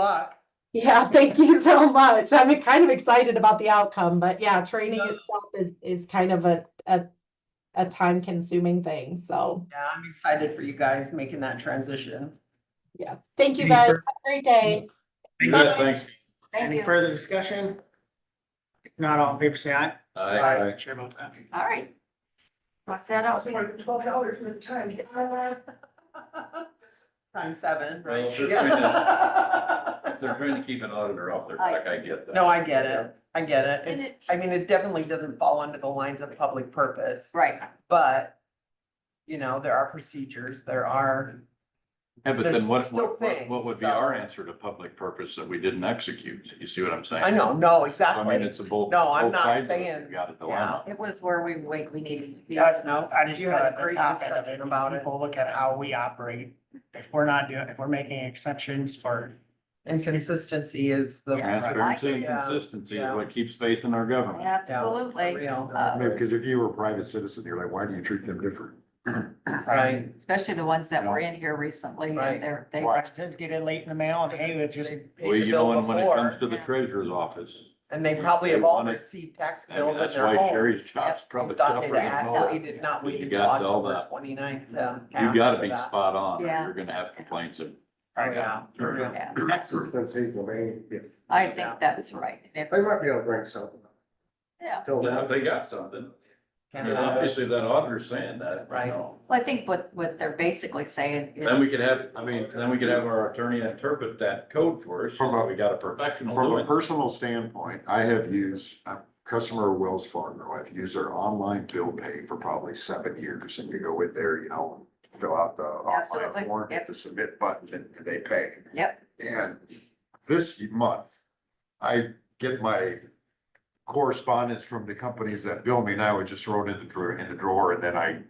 luck. Yeah, thank you so much. I'm kind of excited about the outcome, but yeah, training itself is, is kind of a, a, a time consuming thing. So, Yeah, I'm excited for you guys making that transition. yeah, thank you Any guys. fur- Have a great day. Thank you. Good, thanks. Thank Any you. further discussion? If Not all in favor, say aye. Chair votes aye. All right. Well, set up. twelve dollars for the time. Times seven, Well, right? if they're Yeah. If They're trying to keep an auditor off their back, I get that. No, I get it. I get it. And It's, I mean, it definitely doesn't fall under the lines of public purpose, Right, but you know, there are procedures, there are, Yeah, but then what, what, There's what- what would be still our answer to public purpose that we didn't execute? You see what I'm saying? I know, no, I mean, exactly. it's a both. No, I'm both not sides of us saying- have Got a Yeah. dilemma. it was where we, wait, we needed to be. Yes, no, I just You had had a a great topic of discussion about it. People look at how we operate. If we're not doing, if we're making exceptions for, And consistency is the. Yeah. Transparency and Yeah. consistency Yeah. is what keeps faith in our government. Absolutely, Real, Uh, No, because if you were a private citizen, you're like, why do you treat them different? right, especially the ones that were in here recently, Right. and they're, they, Watch, just get it late in the mail and hey, it just, They paid Well, the you bill know, and when it before. comes to the Yeah. treasurer's office, And they probably have They all wanna- received tax I mean, bills in that's their why Sherry's homes. job's probably Done tougher it than ask asked, most. we did not You wait until got all October that. twenty ninth. You gotta be spot on, or Yeah. you're gonna have complaints of. Yeah. Sure. yeah, Consistency is the main, yes. I think that's right. And if- They might be able to bring something. Yeah. Till Now, then. if they got something, I mean, Canada. obviously that auditor's saying Right. that, right now. Well, I think what, what they're basically saying Then we is, could have, I mean, then we could have our attorney interpret that code for us, so From a- that we got a professional From a doing it. personal standpoint, I have used, a customer of Wells Fargo, I've used their online bill pay for probably seven years. And you go in there, you know, fill out the Absolutely, online form, yep. hit the submit button and they pay. Yep. And this month, I get my correspondence from the companies that bill me and I would just throw it in the drawer, in the drawer and then I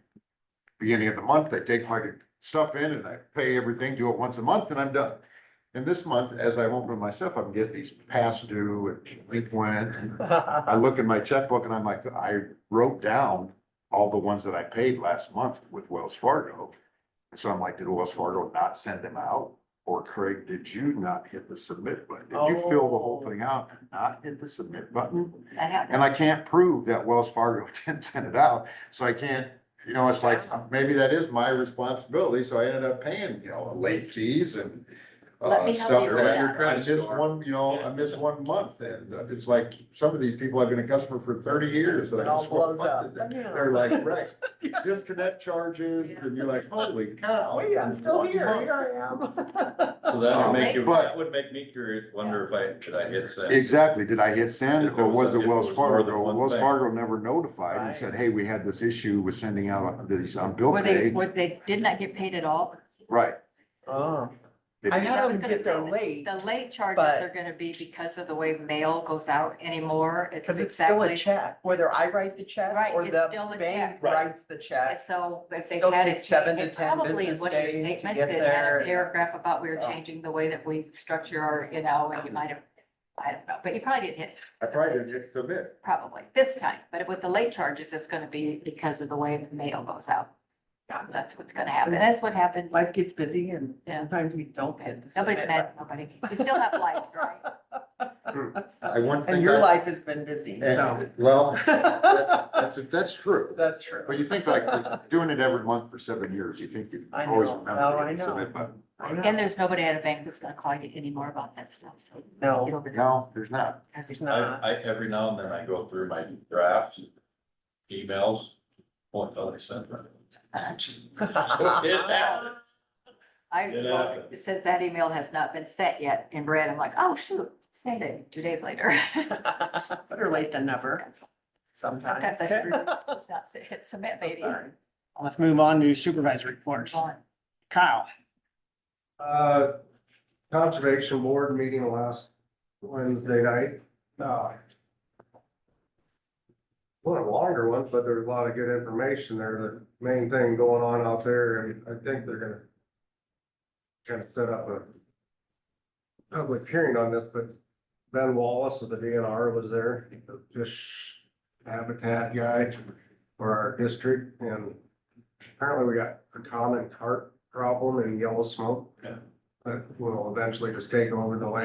beginning of the month, I take my stuff in and I pay everything, do it once a month and I'm done. And this month, as I open myself, I'm getting these past due and delinquent. and I look in my checkbook and I'm like, I wrote down all the ones that I paid last month with Wells Fargo. And so I'm like, did Wells Fargo not send them out? Or Craig, did you not hit the submit button? Did you fill the whole Oh. thing out and not hit the submit button? that And happened, I can't prove that Wells Fargo didn't send it out, so I can't, you know, it's like, maybe that is my responsibility, so I ended up paying, you know, late fees and. Let Uh, me help stuff you with that, that. I missed one, you know, I missed one month, and uh, it's like, some of these people have been a customer for thirty years, and It I all just one blows up. month. and They're like, right, disconnect charges, and you're like, holy cow. Wait, Oh, I'm still one here, month. here I am. So that would make you, But- that would make me curious, wonder if I, should I hit send? Exactly, did I hit send If it or was- was it if it Wells was more than Fargo? one Wells thing. Fargo never notified Right. and said, hey, we had this issue with sending out these on bill where they, pay. where they did not get paid at all. Right. Oh, They I did. had I was them gonna get there say that late, The late charges But- are gonna be because of the way mail goes out anymore. cause it's still a exactly- check, whether I write the check Right, or it's still the a bank check. Right. writes the And check. So if they Still had takes it. seven to it 10 probably business was in your days to statement get that had a there. Paragraph about we were So- changing the way that we structure our, you know, and you might have, I don't know, but you probably didn't hit, I probably didn't hit submit. probably this time. But with the late charges, it's gonna be because of the way mail goes out. That's what's gonna happen. That's what happened. Life gets busy and Yeah. sometimes we don't hit the Nobody's submit mad at nobody. You still have life, right? I one And thing, your I- life has been busy, so. and- well, that's, that's, that's true. That's true. But you think like, for doing it every month for seven years, you think you I know. always Well, remember I to hit know. submit button. I know. And there's nobody at a bank that's gonna call you anymore about that stuff, so. No. get over it. No, there's not. There's I, not. I, every now and then I go through my drafts, emails, what the hell I sent them. It happened. I, It happened. it says that email has not been sent yet in red. I'm like, oh, shoot, send it two days later. Better late than never, sometimes. Sometimes I screw it up. It's not- Hit submit, baby. Sorry. let's move on to supervisory reports. Gone. Kyle, Uh, Conservation Board meeting last Wednesday night. Uh, One of the longer ones, but there's a lot of good information there. The main thing going on out there, and I think they're gonna kind of set up a public hearing on this, but Ben Wallace of the DNR was there, the fish habitat guy for our district, and apparently we got a common carp problem in Yellow Smoke. that will eventually just take over the lake.